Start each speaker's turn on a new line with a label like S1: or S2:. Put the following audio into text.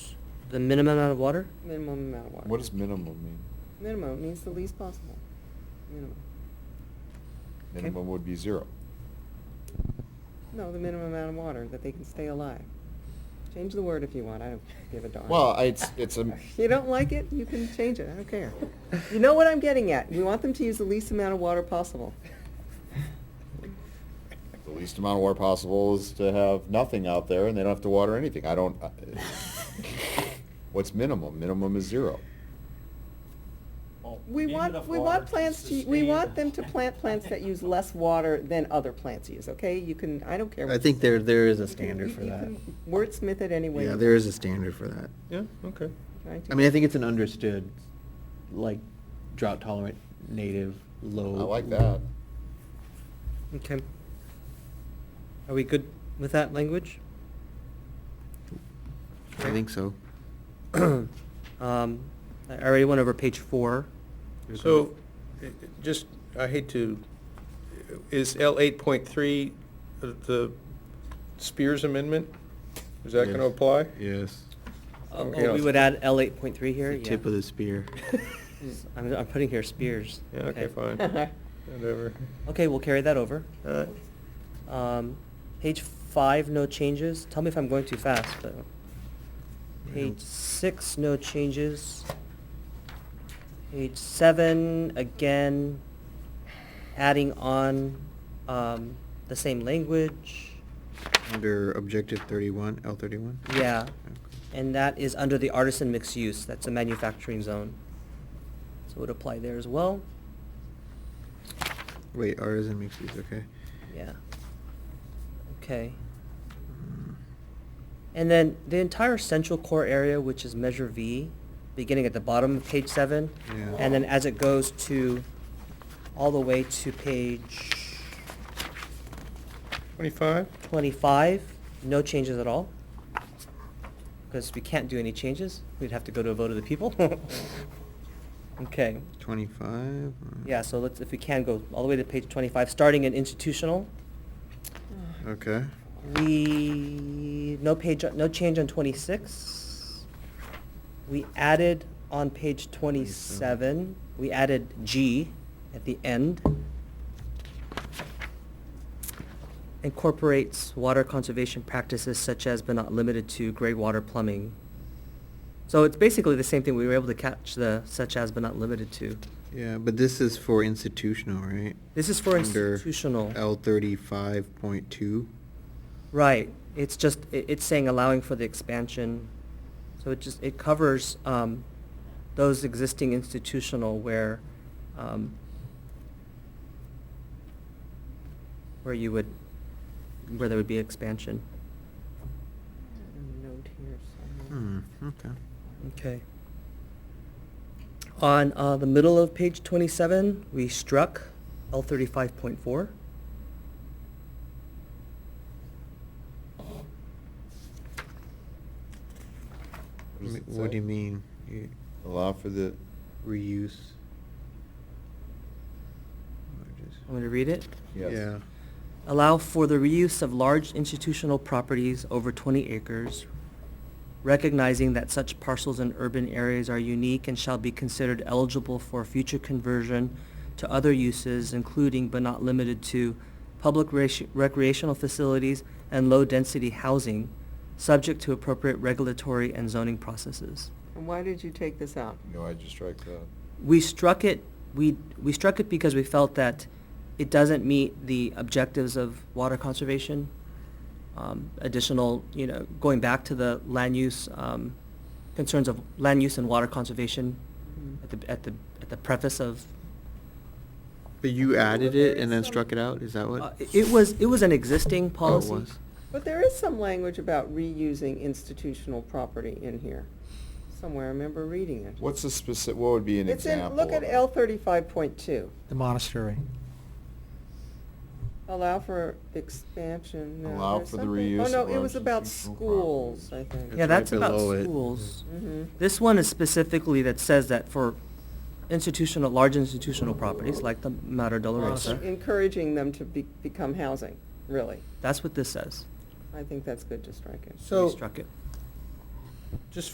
S1: The minimum amount of water?
S2: minimum amount of water.
S3: What does minimum mean?
S2: Minimum means the least possible, minimum.
S1: Okay.
S3: Minimum would be zero.
S2: No, the minimum amount of water that they can stay alive. Change the word if you want, I don't give a darn.
S3: Well, it's, it's a,
S2: You don't like it, you can change it, I don't care. You know what I'm getting at, we want them to use the least amount of water possible.
S3: the least amount of water possible is to have nothing out there and they don't have to water anything. I don't, I- what's minimum? Minimum is zero.
S4: Well,
S2: We
S4: need
S2: want,
S4: enough
S2: we
S4: water
S2: want plants to, we
S4: sustain-
S2: want them to plant plants that use less water than other plants use, okay? You can, I don't care.
S1: I think there, there is a
S2: You can-
S1: standard
S2: you-
S1: for
S2: you
S1: that.
S2: can Wordsmith it anyway.
S1: Yeah, there is a standard for that.
S5: Yeah, okay.
S1: I mean, I think it's an understood, like drought tolerant, native,
S3: I
S1: low.
S3: like that.
S6: Okay. Are we good with that language?
S1: I think so.
S6: Um, I already went over page four. You're good
S5: So,
S6: with-
S5: i- i- just, I hate to, is L eight point three the Spears Amendment? Is that gonna
S3: Yes.
S5: apply?
S3: Yes.
S6: Oh,
S5: okay.
S6: oh, we would add L eight point three here?
S1: The
S6: Yeah.
S1: Tip of the spear.
S6: I'm, I'm putting here spears.
S5: Yeah, okay, fine, whatever. Uh,
S6: Okay, we'll carry that over.
S5: All right.
S6: Um, page five, no changes. Tell me if I'm going too fast, but. Page six, no changes. Page seven, again, adding on, um, the same language.
S1: Under objective thirty-one, L thirty-one?
S6: Yeah, and that is under the artisan mixed use. That's a manufacturing zone. So it would apply there as well.
S1: Wait, artisan mixed use, okay.
S6: Yeah. Okay.
S1: Mm.
S6: And then the entire central core area, which is measure V, beginning at the bottom of page seven.
S1: Yeah.
S6: And then as it goes to, all the way to page
S5: Twenty-five?
S6: twenty-five, no changes at all. Because we can't do any changes. We'd have to go to a vote of the people. Okay.
S1: Twenty-five? uh,
S6: Yeah, so let's, if we can, go all the way to page twenty-five, starting in institutional.
S1: Okay.
S6: We, no page, no change on twenty-six. We added on page twenty-seven, we added G at the end. Incorporates water conservation practices such as but not limited to gray water plumbing. So it's basically the same thing, we were able to catch the such as but not limited to.
S1: Yeah, but this is for institutional, right?
S6: This is for
S1: Under
S6: institutional.
S1: L thirty-five point two.
S6: Right, it's just, i it's saying allowing for the expansion, so it just, it covers, um, those existing institutional where, um, where you would, where there would be expansion.
S2: Note here somewhere.
S1: Hmm, okay.
S6: Okay. On, uh, the middle of page twenty-seven, we struck L thirty-five point four.
S3: What does
S1: M-
S3: it
S1: What do
S3: say?
S1: you mean? You-
S3: Allow for the,
S1: Reuse? Or just-
S6: I'm gonna read it.
S3: yes.
S1: Yeah.
S6: allow for the reuse of large institutional properties over 20 acres, recognizing that such parcels in urban areas are unique and shall be considered eligible for future conversion to other uses, including but not limited to public rec- recreational facilities and low-density housing, subject to appropriate regulatory and zoning processes.
S2: And why did you take this out?
S3: No, I just strike that.
S6: We struck it, we, we struck it because we felt that it doesn't meet the objectives of water conservation. Um, additional, you know, going back to the land use, um, concerns of land use and water conservation
S2: Mm.
S6: at the, at the, at the preface of.
S1: But you added
S2: there
S1: it
S2: is
S1: and then
S2: some-
S1: struck it out, is that
S6: Uh,
S1: what?
S6: It was, it was an existing
S1: Oh, it
S6: policy.
S1: was.
S2: But there is some language about reusing institutional property in here, somewhere, I remember reading it.
S3: What's a specific, what would be an
S2: It's in,
S3: example?
S2: look at
S3: of-
S2: L thirty-five point two,
S7: The monastery.
S2: allow for expansion. no,
S3: Allow
S2: there's
S3: for the
S2: something-
S3: reuse
S2: Oh,
S3: of
S2: no, it was about
S3: institutional
S2: schools, I
S3: properties.
S6: Yeah,
S2: think.
S1: It's right
S6: that's about
S1: below it.
S6: schools.
S2: Mhm.
S6: This one is specifically that says that for institutional, large institutional properties like the Mater Dolorosa.
S2: Encouraging them to be, become housing, really.
S6: That's what this says.
S2: I think that's good to strike it.
S6: We
S5: So,
S6: struck it.
S5: just